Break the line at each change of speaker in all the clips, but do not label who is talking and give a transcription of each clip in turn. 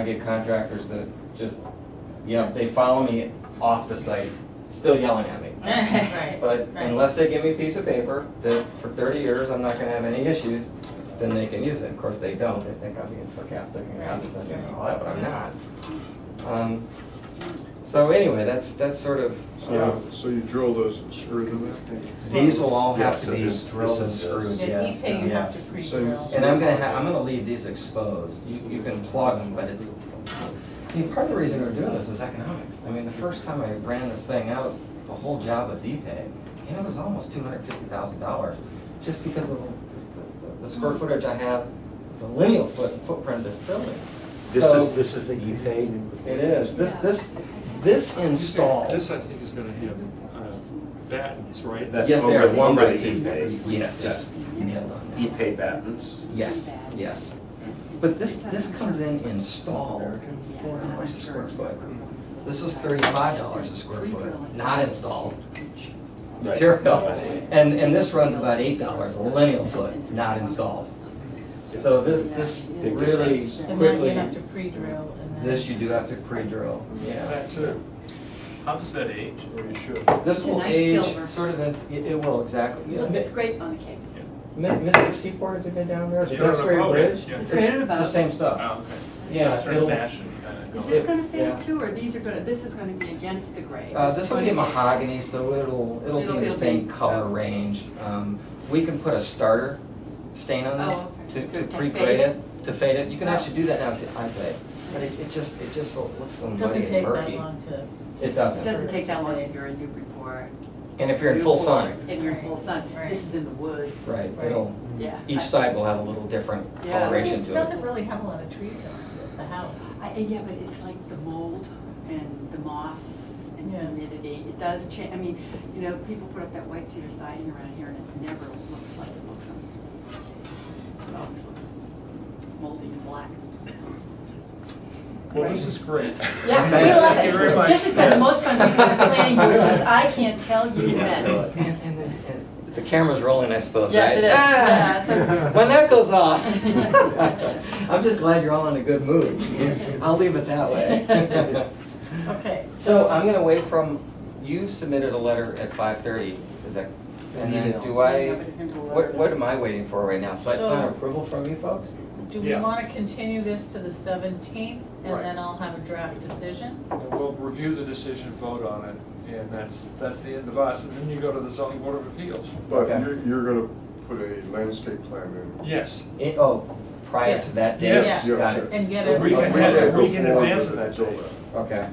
I get contractors that just, you know, they follow me off the site, still yelling at me.
Right.
But unless they give me a piece of paper that for thirty years I'm not gonna have any issues, then they can use it. Of course, they don't. They think I'm being sarcastic and condescending and all that, but I'm not. Um, So anyway, that's, that's sort of,
Yeah,
uh,
so you drill those and screw them in.
these will all have
Yeah,
to
so
be
this-
drilled and
this is-
screwed,
Yeah, you
yes,
say you have to
yes.
pre-drill.
And I'm gonna ha I'm gonna leave these exposed, you, you can plug them, but it's, I mean, part of the reason we're doing this is economics. I mean, the first time I ran this thing out, the whole job was E-Pay, and it was almost two hundred fifty thousand dollars, just because of the, the- the square
Mm-hmm.
footage I have, the lineal foot, footprint of this building.
This
So,
is, this is the
E
E-Pay?
it is, this, this, this install.
This, I think, is gonna have uh, battens, right?
That's
Yes, they
over-
are one
over
by
the
two.
E-Pay.
Yes, just nailed on that.
E-Pay battens.
Yes, yes. But this, this comes in installed, four dollars a square foot. This is thirty-five dollars a square foot, not installed material. And, and this runs about eight dollars a lineal foot, not installed. So this, this
Big
really
difference.
And then you
quickly,
have to pre-drill and then.
this you do have to pre-drill, yeah.
That's it,
How's that age?
or you should.
This will
Nice
age
silver.
sort of, in- it, it will, exactly. Yeah,
Look, it's
Mi-
great on the cake.
Mi- Mystic Seaport, have you been down there? It's
You don't
Duxbury
know about it,
Bridge.
yeah.
It's
It's
it's
kind of
the
about-
same stuff.
Oh, okay.
Yeah,
So Sort
it'll-
of fashion
uh,
kind of
Is
going.
this gonna
Yeah.
fade too, or these are gonna, this is gonna be against the gray?
Uh, this will be mahogany, so it'll, it'll
It'll-
be in the
it'll
same
be-
color
okay.
range. Um, We can put a starter stain on
Oh,
this to,
okay.
to
To
pre-grade
fade it?
it, to fade it. You can actually do that now with the iPad, but it, it just, it just looks so
It
muddy
Doesn't
and
take that
murky.
long to.
It
It
doesn't.
doesn't take that long if you're in Newburyport.
And if you're in full sun,
And you're in full sun,
Right.
this is in the woods.
right, it'll,
Yeah.
each
I-
side will have a little different
Yeah.
I mean,
coloration
It
to it.
doesn't really have a lot of trees on it, the house.
I, yeah, but it's like the mold and the moss and
Yeah.
humidity, it does change, I mean, you know, people put up that white cedar siding around here and it never looks like it looks on. It always looks moldy and black.
Well, this is great.
Yeah,
Thank
we love
you very
it.
much.
This has been the most fun we've had at the planning board since
Yeah.
I can't tell you when.
And, and, then- and the camera's rolling, I suppose, right?
Yes, it is.
Ah!
Yeah, so-
When that goes off, I'm just glad you're all in a good mood. I'll leave it that way.
Okay.
So I'm gonna wait from, you submitted a letter at five thirty, is that? And then
email.
do I,
Yeah, but it's gonna be a
what,
letter.
what am I waiting for right now? Site plan
So-
approval from you folks?
Do we
Yeah.
want to continue this to the seventeenth
Right.
and then I'll have a draft decision?
And we'll review the decision, vote on it, and that's, that's the end of us, and then you go to the zoning board of appeals.
But
Okay.
you're, you're gonna put a landscape plan in.
Yes,
It- oh, prior
Yeah.
to that date?
Yes.
Yeah.
Got it,
And get
Because we
it,
can
We
have
can't
it,
go
we can
forward
advance
with
it
that
that day.
okay.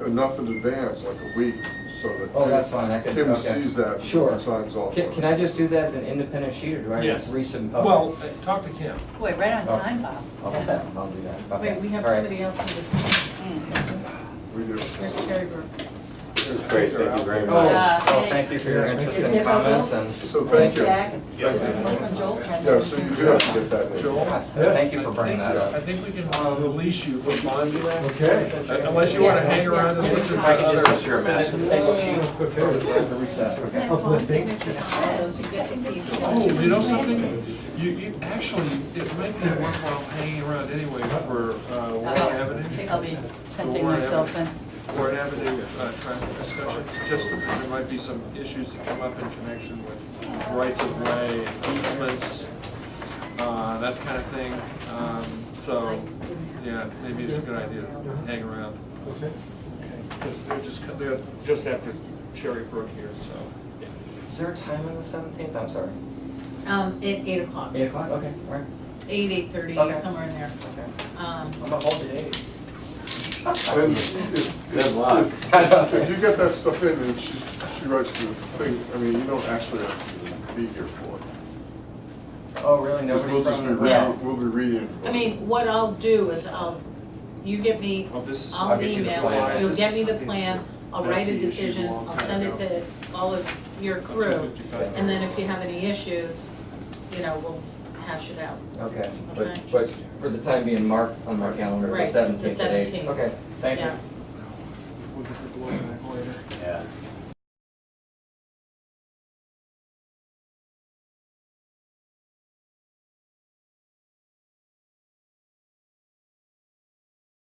Uh, uh, Enough in advance, like a week, so that.
Oh, that's fine, I can,
Kim
okay.
sees that.
Sure.
and Signs off. on
Can,
it.
can I just do that as an independent sheet, or do I
Yes.
resubmit?
Well, uh, talk to Kim.
Boy, right on
Oh.
time, Bob.
I'll do that, I'll do that. Okay.
wait, we have
All right.
somebody else for the,
We do.
here's Terry Burke.
Great, thank you very
Oh,
much.
Yeah,
well, thank
thanks.
you for your
Yeah, thank
interest
you.
and comments, and
So thank you.
Jack.
Thank you.
When Joel's had
Yeah,
it.
so you do have to get that in.
Joel?
Yeah, thank you for bringing that up.
I think we can uh, release you from bonding,
Okay.
unless you want to hang around and listen to
I can
others.
just issue a master single sheet for the reset.
And then full signatures on those, you get the deed.
Oh, you know something? You, you, actually, it might be worthwhile hanging around anyway for uh, Warren
I think I'll
Avenue.
be
The
sending
Warren
myself in.
Avenue- Warren Avenue uh, traffic discussion, just because there might be some issues that come up in connection with rights of way, easements, uh, that kind of thing. Um, So, yeah, maybe it's a good idea to hang around. Okay. They're just, co- they're just after Cherry Brook here, so.
Is there a time on the seventeenth? I'm sorry.
Um, at eight o'clock,
Eight o'clock? Okay, all right.
eight, eight-thirty,
Okay.
somewhere in there. Um,
I'm a whole day.
And if-
Good luck.
If you get that stuff in and she, she writes the thing, I mean, you don't actually have to be here for it.
Oh, really?
'Cause
Nobody
we'll just be
from?
re- Yeah.
reading, we'll be reading.
I mean, what I'll do is I'll, you get me,
Oh, this is-
I'll
I'll get you the
email,
plan.
it. you'll
This
get
is
me the
something-
plan, I'll
that's
write a
the issue
decision,
long
I'll
time
send it
ago.
to all of your crew.
250 guy.
And then if you have any issues, you know, we'll hash it out.
Okay,
Okay.
but, but for the time being, mark on my calendar,
Right,
the
the
seventeenth at eight.
17th.
Okay, thank you.
Yeah.
We'll get the blowback later.
Yeah.